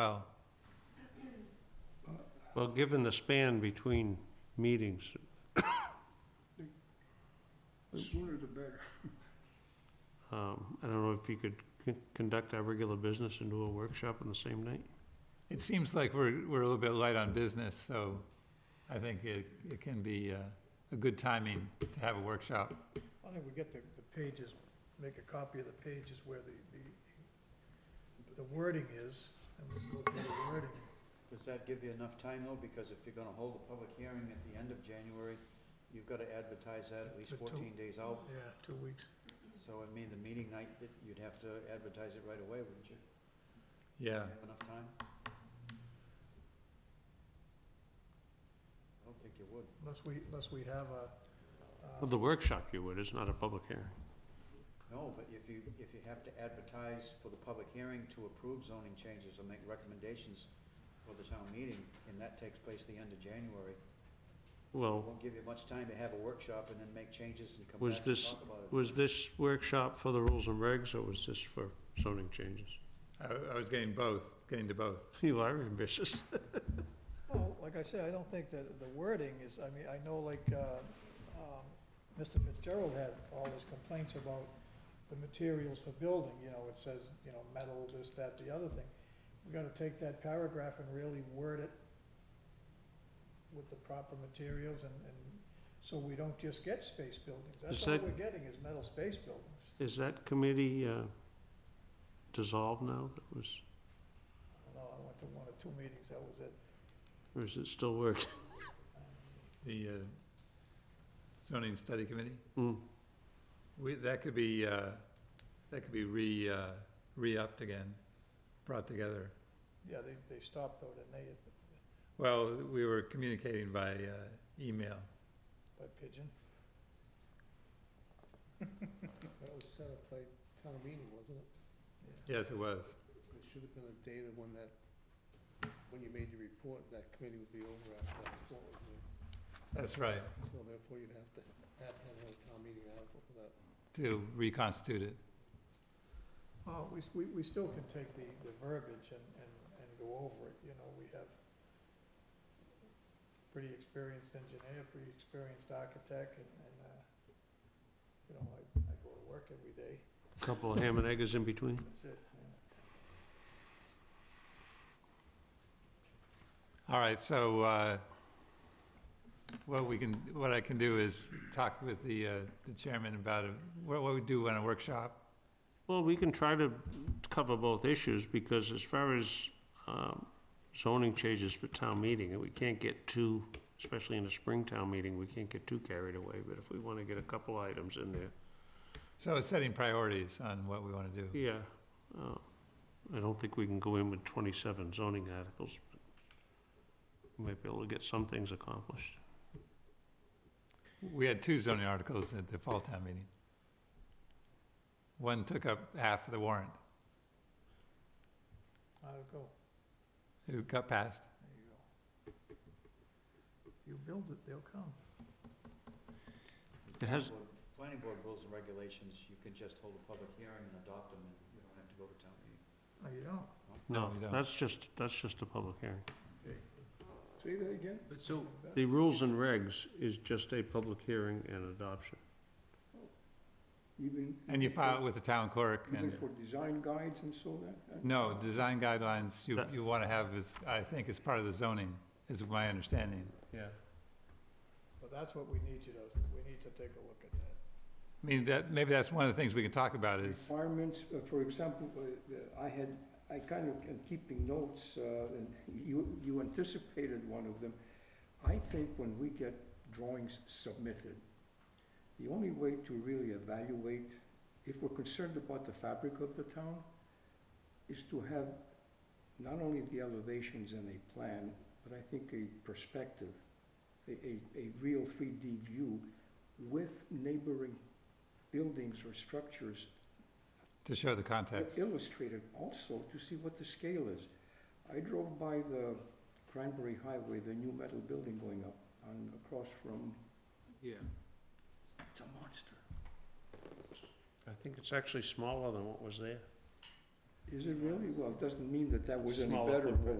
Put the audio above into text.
Well, Well, given the span between meetings, The sooner the better. um, I don't know if you could c- conduct our regular business and do a workshop on the same night? it seems like we're, we're a little bit light on business, so I think it, it can be uh, a good timing to have a workshop. I think we get the, the pages, make a copy of the pages where the, the, the wording is, and we go through the wording. Does that give you enough time though? Because if you're gonna hold a public hearing at the end of January, you've gotta advertise that at least For two- fourteen days out. Yeah, two weeks. So I mean, the meeting night, that you'd have to advertise it right away, wouldn't you? Yeah. Have Enough time? I don't think you would. Unless we, unless we have a, uh, Well, the workshop you would, it's not a public hearing. No, but if you, if you have to advertise for the public hearing to approve zoning changes or make recommendations for the town meeting, and that takes place the end of January, it Well, won't give you much time to have a workshop and then make changes and come Was back and this- talk about it. was this workshop for the rules and regs, or was this for zoning changes? I, I was getting both, getting to both. You are ambitious. well, like I said, I don't think that the wording is, I mean, I know like, uh, um, Mr. Fitzgerald had all his complaints about the materials for building, you know, it says, you know, metal, this, that, the other thing. We gotta take that paragraph and really word it with the proper materials and, and so we don't just get space buildings. That's Is all that- we're getting is metal space buildings. Is that committee uh, dissolved now? That was, I don't know, I went to one or two meetings, that was it. or is it still working? The uh, zoning study committee, Mm, we, that could be, uh, that could be re, uh, re-upped again, brought together. Yeah, they, they stopped though, didn't they, Well, we were communicating by uh, email. by pigeon? That was set up by town meeting, wasn't it? Yes, it was. There should have been a date of when that, when you made your report, that committee would be over after that report was made. That's right, So therefore, you'd have to have, have a town meeting article for that. to reconstitute it. Well, we, s- we, we still can take the, the verbiage and, and, and go over it, you know, we have pretty experienced engineer, pretty experienced architect, and, and, uh, you know, I, I go to work every day, Couple of ham and eggers in between? that's it. All right, so uh, what we can, what I can do is talk with the uh, the chairman about it. what what we do on a workshop. Well, we can try to cover both issues, because as far as um, zoning changes for town meeting, we can't get too, especially in a spring town meeting, we can't get too carried away, but if we want to get a couple items in there, So it's setting priorities on what we want to do. yeah. uh, I don't think we can go in with 27 zoning articles. but We might be able to get some things accomplished. We had two zoning articles at the fall town meeting. One took up half of the warrant. How'd it go? It got passed. There you go. You build it, they'll come. It has- Well, Planning board rules and regulations, you can just hold a public hearing and adopt them, and you don't have to go to town meeting. No, you don't. No, No, we don't. that's just, that's just a public hearing. Say that again? But so. The rules and regs is just a public hearing and adoption. Even. And you file it with the town clerk and, design guides and so that? uh, no, design guidelines you, That- you want to have is, I think, is part of the zoning, is my understanding. Yeah. But that's what we need you to, we need to take a look at that. I mean, that, maybe that's one of the things we can talk about is, Requirements, uh, for example, uh, uh, I had, I kind of am keeping notes, uh, and you, you anticipated one of them. I think when we get drawings submitted, the only way to really evaluate, if we're concerned about the fabric of the town, is to have not only the elevations and a plan, but I think a perspective, a, a, a real three D view with neighboring buildings or structures to show the context. illustrated also to see what the scale is. I drove by the Cranberry Highway, the new metal building going up on, across from, Yeah. it's a monster. I think it's actually smaller than what was there. Is it really? Well, it doesn't mean that that was any Smaller better, but footprint.